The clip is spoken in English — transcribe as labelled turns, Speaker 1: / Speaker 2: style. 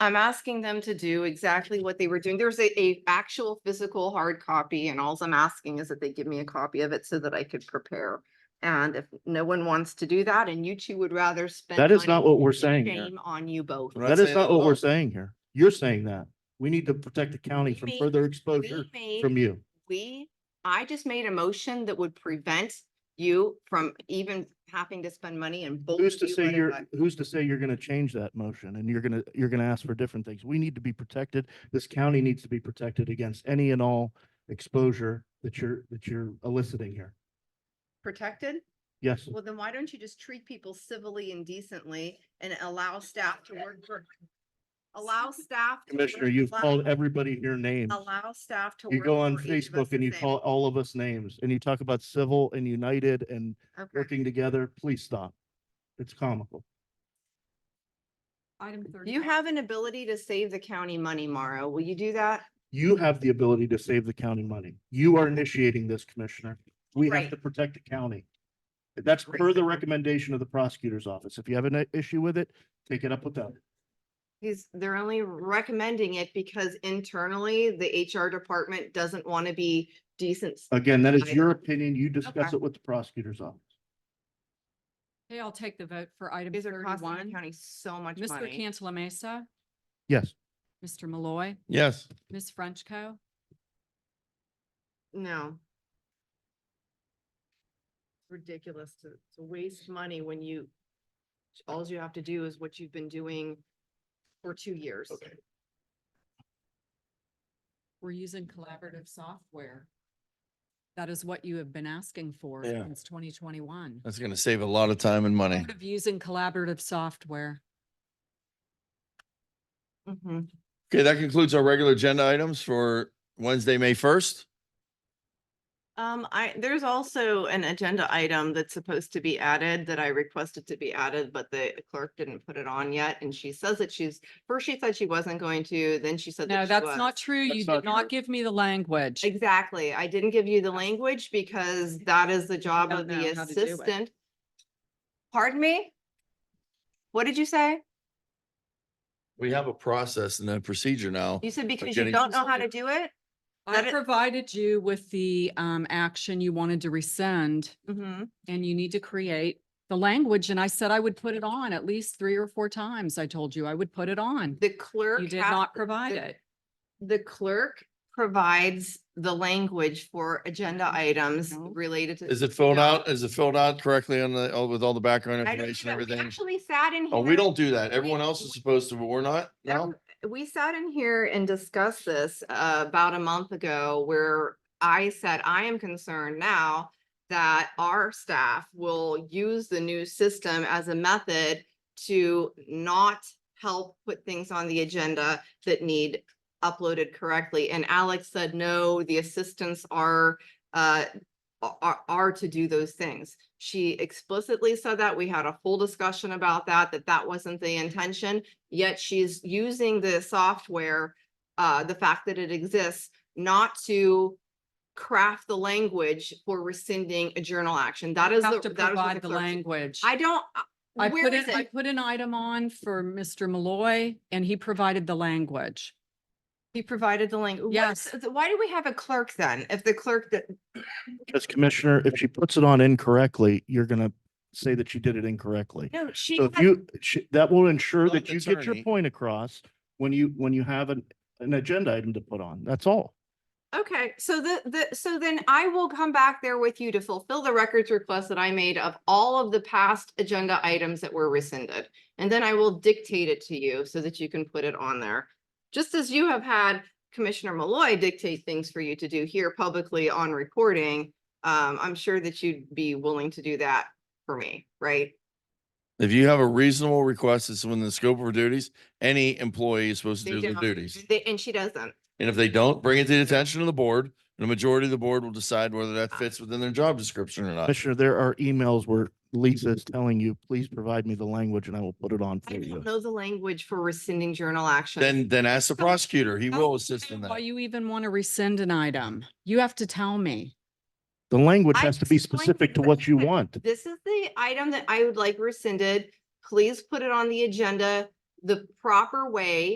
Speaker 1: I'm asking them to do exactly what they were doing. There's a, a actual physical hard copy and alls I'm asking is that they give me a copy of it so that I could prepare. And if no one wants to do that and you two would rather spend.
Speaker 2: That is
Speaker 1: money,
Speaker 2: not what we're saying here.
Speaker 1: Shame on you both.
Speaker 3: We're
Speaker 2: That is
Speaker 3: saying
Speaker 2: not
Speaker 3: that
Speaker 2: what
Speaker 3: at
Speaker 2: we're
Speaker 3: all.
Speaker 2: saying here. You're saying that. We need to protect the county
Speaker 1: We
Speaker 2: from
Speaker 1: made-
Speaker 2: further
Speaker 1: We
Speaker 2: exposure
Speaker 1: made-
Speaker 2: from you.
Speaker 1: We, I just made a motion that would prevent you from even having to spend money and. both
Speaker 2: Who's
Speaker 1: of
Speaker 2: to
Speaker 1: you
Speaker 2: say
Speaker 1: running
Speaker 2: you're,
Speaker 1: back.
Speaker 2: who's to say you're gonna change that motion and you're gonna, you're gonna ask for different things? We need to be protected. This county needs to be protected against any and all exposure that you're, that you're eliciting here.
Speaker 1: Protected?
Speaker 2: Yes,
Speaker 1: Well, then why don't you just treat people civilly and decently and allow staff to work for? Allow staff. to work-
Speaker 2: Commissioner, you've
Speaker 1: allow-
Speaker 2: called everybody your name.
Speaker 1: Allow staff to.
Speaker 2: You
Speaker 1: work
Speaker 2: go on
Speaker 1: for each of us
Speaker 2: Facebook and
Speaker 1: the
Speaker 2: you
Speaker 1: same.
Speaker 2: call all of us names and you talk about civil and united and
Speaker 1: Okay.
Speaker 2: working together. Please stop. It's comical.
Speaker 4: Item thirty.
Speaker 1: You have an ability to save the county money, Mara. Will you do that?
Speaker 2: You have the ability to save the county money. You are initiating this, Commissioner. We have
Speaker 1: Right.
Speaker 2: to protect the county. That's
Speaker 1: Right.
Speaker 2: per the recommendation of the prosecutor's office. If you have an i- issue with it, take it up with them.
Speaker 1: He's, they're only recommending it because internally, the HR department doesn't want to be decent.
Speaker 2: Again, that is
Speaker 1: Okay.
Speaker 2: your opinion. You discuss
Speaker 1: Okay.
Speaker 2: it with the prosecutor's office.
Speaker 4: Okay, I'll take the vote for item
Speaker 1: These are costing the
Speaker 4: thirty-one.
Speaker 1: county so much
Speaker 4: Mr.
Speaker 1: money.
Speaker 4: Cantala Mesa,
Speaker 2: Yes,
Speaker 4: Mr. Malloy,
Speaker 3: Yes.
Speaker 4: Ms. Frenchco.
Speaker 1: No. Ridiculous to, to waste money when you, alls you have to do is what you've been doing for two years.
Speaker 2: Okay.
Speaker 4: We're using collaborative software. That is what you have been asking for
Speaker 3: Yeah. Uh,
Speaker 4: since twenty twenty-one.
Speaker 3: That's gonna save a lot of time and money.
Speaker 4: Of using collaborative software.
Speaker 1: Mhm.
Speaker 3: Okay, that concludes our regular agenda items for Wednesday, May first.
Speaker 1: Um, I, there's also an agenda item that's supposed to be added that I requested to be added, but the clerk didn't put it on yet. And she says that she's, first she said she wasn't going to, then she said. that
Speaker 4: No,
Speaker 1: she
Speaker 4: that's
Speaker 1: was.
Speaker 4: not true. You
Speaker 2: That's not
Speaker 4: did not give me the language.
Speaker 1: Exactly. I didn't give you the language because that is the job
Speaker 4: don't
Speaker 1: of the
Speaker 4: know how to do it.
Speaker 1: assistant. Pardon me? What did you say?
Speaker 3: We have a process and a procedure now.
Speaker 1: You said because you
Speaker 3: Jenny-
Speaker 1: don't know how to do it? that
Speaker 4: I
Speaker 1: it-
Speaker 4: provided you with the um action you wanted to rescind
Speaker 1: Mm-hmm.
Speaker 4: and you need to create the language. And I said I would put it on at least three or four times. I told you I would put it on.
Speaker 1: The clerk.
Speaker 4: You did
Speaker 1: has-
Speaker 4: not provide
Speaker 1: the-
Speaker 4: it.
Speaker 1: The clerk provides the language for agenda items
Speaker 4: Mm-hmm. No.
Speaker 1: related to.
Speaker 3: Is it filled
Speaker 1: No.
Speaker 3: out? Is it filled out correctly on the, oh, with all the background
Speaker 1: I don't
Speaker 3: information,
Speaker 1: do that. We
Speaker 3: everything?
Speaker 1: Actually sat in.
Speaker 3: Oh, we
Speaker 1: here-
Speaker 3: don't do that. Everyone else is supposed to, but we're not
Speaker 1: No,
Speaker 3: now?
Speaker 1: we sat in here and discussed this uh, about a month ago where I said, I am concerned now that our staff will use the new system as a method to not help put things on the agenda that need uploaded correctly. And Alex said, no, the assistants are uh, are, are to do those things. She explicitly said that. We had a full discussion about that, that that wasn't the intention. Yet she's using the software, uh, the fact that it exists, not to craft the language for rescinding a journal action. That is.
Speaker 4: Have to
Speaker 1: the- that is what
Speaker 4: provide the
Speaker 1: clerk-
Speaker 4: language.
Speaker 1: I don't,
Speaker 4: I
Speaker 1: uh, where
Speaker 4: put
Speaker 1: is
Speaker 4: it, I
Speaker 1: it?
Speaker 4: put an item on for Mr. Malloy and he provided the language.
Speaker 1: He provided the link.
Speaker 4: Yes.
Speaker 1: Why do we have a clerk then? If the clerk that,
Speaker 2: because Commissioner, if she puts it on incorrectly, you're gonna say that she did it incorrectly.
Speaker 1: no, she.
Speaker 2: So if
Speaker 1: had-
Speaker 2: you, sh- that will ensure
Speaker 3: Not
Speaker 2: that
Speaker 3: the
Speaker 2: you get your
Speaker 3: attorney.
Speaker 2: point across when you, when you have an, an agenda item to put on. That's all.
Speaker 1: Okay, so the, the, so then I will come back there with you to fulfill the records request that I made of all of the past agenda items that were rescinded. And then I will dictate it to you so that you can put it on there. Just as you have had Commissioner Malloy dictate things for you to do here publicly on recording, um, I'm sure that you'd be willing to do that for me, right?
Speaker 3: If you have a reasonable request, it's within the scope of her duties. Any employee is supposed to
Speaker 1: They
Speaker 3: do their
Speaker 1: don't.
Speaker 3: duties.
Speaker 1: They- And she doesn't.
Speaker 3: And if they don't, bring it to the attention of the board. And the majority of the board will decide whether that
Speaker 1: Ah.
Speaker 3: fits within their job description or not.
Speaker 2: Commissioner, there are emails where Lisa is telling you, please provide me the language and I will put it on for
Speaker 1: I don't
Speaker 2: you.
Speaker 1: know the language for rescinding journal action.
Speaker 3: Then, then ask the prosecutor. He
Speaker 4: I
Speaker 3: will
Speaker 4: don't
Speaker 3: assist in
Speaker 4: Why
Speaker 3: that.
Speaker 4: you even want to rescind an item? You have to tell me.
Speaker 2: The language
Speaker 1: I
Speaker 2: has to be
Speaker 1: explained
Speaker 2: specific to
Speaker 1: what
Speaker 2: what you
Speaker 1: happened.
Speaker 2: want.
Speaker 1: This is the item that I would like rescinded. Please put it on the agenda the proper way